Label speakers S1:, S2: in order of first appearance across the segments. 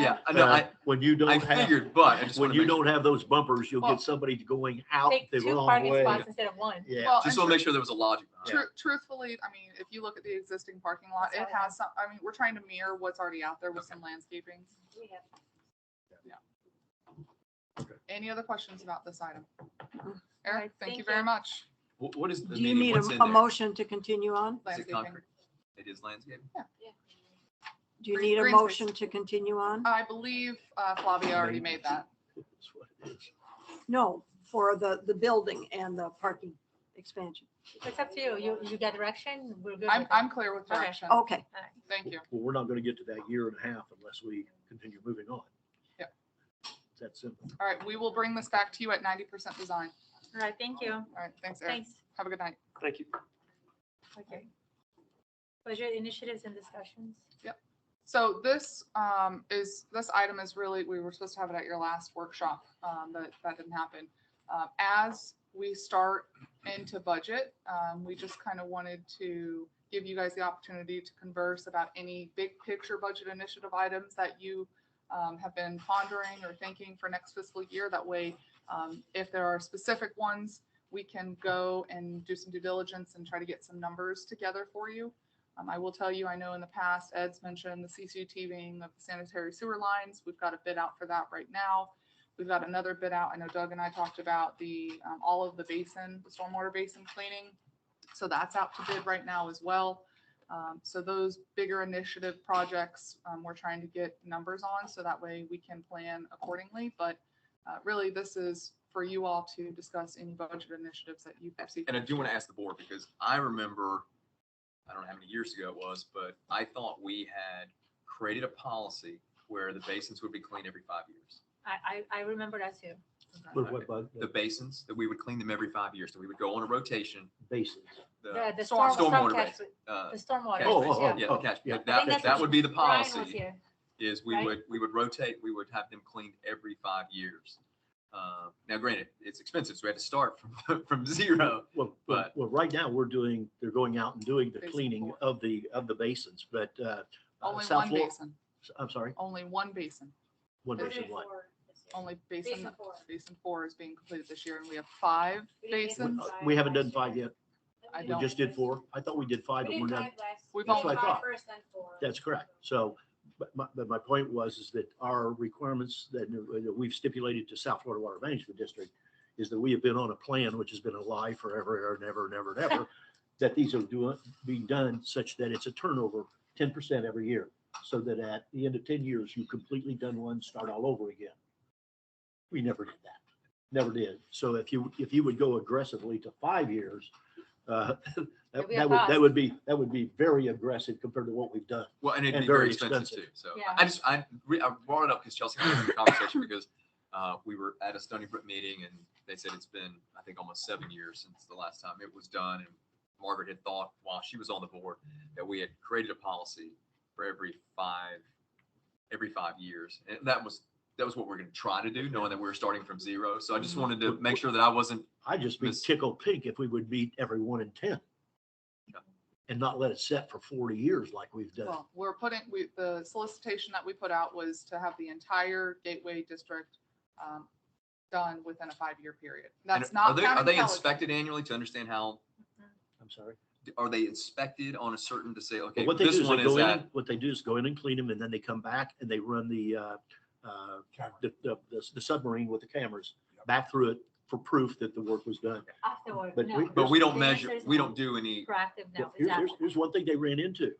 S1: Yeah, I know,
S2: Uh,
S1: I,
S2: When you
S1: I
S2: don't have,
S1: figured, but I just
S2: when
S1: want
S2: you
S1: to make,
S2: don't have those bumpers, you'll
S3: Well,
S2: get somebody going out
S3: Take
S2: the
S3: two
S2: wrong
S3: parking
S2: way.
S3: spots instead of one.
S2: Yeah,
S4: Well,
S1: just
S4: and
S1: want to make sure there was a logic. behind it.
S4: tru- truthfully, I mean, if you look at the existing parking lot, it
S3: That's all I
S4: has some, I mean, we're trying to mirror what's already out there with some landscaping.
S3: We have-
S4: Any other questions about this item?
S3: right,
S4: Eric, thank you
S3: thank
S4: very
S3: you.
S4: much.
S1: Wh- What is the
S5: Do you
S1: meaning,
S5: need
S1: what's in
S5: a, a
S1: there?
S5: motion to continue on?
S1: Is it
S4: Landscaping.
S1: concrete? It is landscape.
S5: Do you
S4: Green-
S5: need a
S4: green space.
S5: motion to continue on?
S4: I believe uh, Flavia already
S2: Maybe.
S4: made that.
S2: That's what it is.
S5: No, for the, the building and the parking expansion.
S3: It's up to you. You, you get direction, we're good.
S4: I'm,
S3: with it.
S4: I'm clear with
S3: Okay. Oh.
S4: direction.
S5: Okay,
S4: Thank you.
S2: Well, we're not gonna get to that year and a half unless we continue moving on.
S4: Yeah.
S2: It's that simple.
S4: All right, we will bring this back to you at ninety percent design.
S3: All right, thank you.
S4: All right, thanks, Eric.
S3: Thanks.
S4: Have a good night.
S6: Thank you.
S3: Okay. Budget initiatives and discussions.
S4: So this um, is, this item is really, we were supposed to have it at your last workshop, um, but that didn't happen. Uh, As we start into budget, um, we just kind of wanted to give you guys the opportunity to converse about any big picture budget initiative items that you um, have been pondering or thinking for next fiscal year. That way, um, if there are specific ones, we can go and do some due diligence and try to get some numbers together for you. Um, I will tell you, I know in the past, Ed's mentioned the CCTVing of the sanitary sewer lines. We've got a bid out for that right now. We've got another bid out. I know Doug and I talked about the, um, all of the basin, the stormwater basin cleaning. So that's out to bid right now as well. Um, so those bigger initiative projects, um, we're trying to get numbers on so that way we can plan accordingly. But, uh, really, this is for you all to discuss any budget initiatives that you perceive.
S1: And I do want to ask the board because I remember, I don't know how many years ago it was, but I thought we had created a policy where the basins would be cleaned every five years.
S3: I, I, I remember that too.
S2: But what about
S1: The
S2: the
S1: basins, that we would clean them every five years. So we would go on a rotation.
S2: bases?
S3: The,
S1: The,
S3: the storm,
S4: Storm-
S3: storm
S1: stormwater
S3: catch,
S1: uh,
S3: the stormwater.
S1: catch
S2: Oh,
S1: basin.
S2: oh, oh,
S3: yeah.
S1: Yeah,
S2: oh,
S1: the catch,
S2: yeah.
S1: that,
S3: I think
S1: that
S3: that's
S1: that
S3: what
S1: would be the
S3: Brian was
S1: policy.
S3: here.
S1: is we
S3: right?
S1: would, we would rotate, we would have them cleaned every five years. Uh, Now granted, it's expensive, so we had to start from, from zero.
S2: Well, well,
S1: But-
S2: well, right now, we're doing, they're going out and doing the
S4: Basin
S2: cleaning
S4: four.
S2: of the, of the basins, but, uh, uh,
S4: Only
S2: South
S4: one
S2: Florida,
S4: basin,
S2: I'm sorry,
S4: only one basin.
S2: one basin,
S3: Basin
S2: one.
S3: four this year.
S4: only basin,
S3: Basin four.
S4: basin four is being completed this year, and we have five
S3: We did
S4: basins.
S3: five
S2: We haven't
S3: last
S2: done five
S3: year.
S2: yet.
S4: I
S2: We
S4: don't.
S2: just did four. I thought we did five,
S3: We
S2: but we're
S3: did five
S2: not.
S3: last.
S4: We've
S3: year.
S4: That's only- what I
S3: Five
S2: thought.
S3: first, then four.
S2: That's correct. So, but my, but my point was is that our requirements that that we've stipulated to South Florida Water Management District is that we have been on a plan which has been a lie forever and ever and ever and ever, that these are doing, being done such that it's a turnover ten percent every year. So that at the end of ten years, you've completely done one, start all over again. We never did that. Never did. So if you, if you would go aggressively to five years, uh, that
S3: It'd be a
S2: that would, that
S3: cost.
S2: would be, that would be very aggressive compared to what we've done.
S1: Well, and it'd
S2: And
S1: be very
S2: very
S1: expensive too.
S2: expensive.
S1: So
S3: Yeah.
S1: I just, I, re- I brought it up because Chelsea had a conversation because uh, we were at a Stony Brook meeting and they said it's been, I think, almost seven years since the last time it was done. And Margaret had thought while she was on the board that we had created a policy for every five, every five years. And that was, that was what we're going to try to do, knowing that we were starting from zero. So I
S2: Mm-hmm.
S1: just wanted to make sure that I wasn't
S2: I'd just be
S1: Miss-
S2: tickled pink if we would meet every one in ten.
S1: Yeah.
S2: And not let it set for forty years like we've done.
S4: Well, we're putting, we, the solicitation that we put out was to have the entire Gateway District um, done within a five-year period.
S1: and
S4: That's
S1: Are
S4: not
S1: they, are
S4: counting
S1: they
S4: Pelican.
S1: inspected annually to understand how,
S2: I'm sorry.
S1: are they inspected on a certain to say,
S2: But
S1: okay,
S2: what they do
S1: this
S2: is
S1: one
S2: they
S1: is
S2: go in,
S1: at
S2: and- what they do is go in and clean them and then they come back and they run the, uh, uh, the, the, the submarine with the cameras back through it for proof that the work was done.
S3: Afterward,
S2: But
S3: no.
S2: we-
S1: But we don't
S3: The
S1: measure,
S3: answer is
S1: we
S3: no.
S1: don't do any,
S3: Proactive now,
S2: Here's, here's,
S3: exactly.
S2: here's one thing they ran into.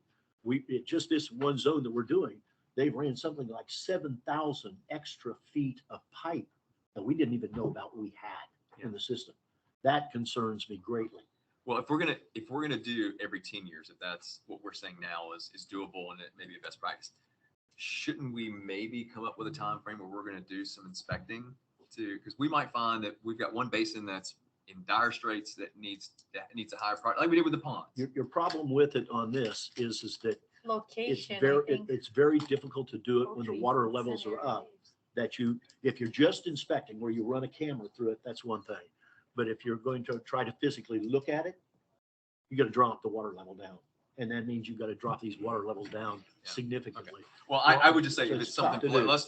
S2: We, it just this one zone that we're doing, they ran something like seven thousand extra feet of pipe that we didn't even know about we had in the system. That concerns me greatly.
S1: well, if we're gonna, if we're gonna do every ten years, if that's what we're saying now is, is doable and it may be a best practice. Shouldn't we maybe come up with a time frame where we're gonna do some inspecting to, because we might find that we've got one basin that's in dire straits that needs, that needs a higher priority, like we did with the ponds.
S2: Your, your problem with it on this is, is that it's
S3: Location,
S2: very,
S3: I
S2: it-
S3: think.
S2: it's very difficult to do it when the
S3: poultry
S2: water
S3: is
S2: levels
S3: another
S2: are up.
S3: use.
S2: that you, if you're just inspecting where you run a camera through it, that's one thing. But if you're going to try to physically look at it, you gotta drop the water level down
S1: And that means you've got to drop these water levels down significantly.
S2: Well, I, I would just say
S1: So
S2: if
S1: it's
S2: it's
S1: tough
S2: something,
S1: to do.
S2: let's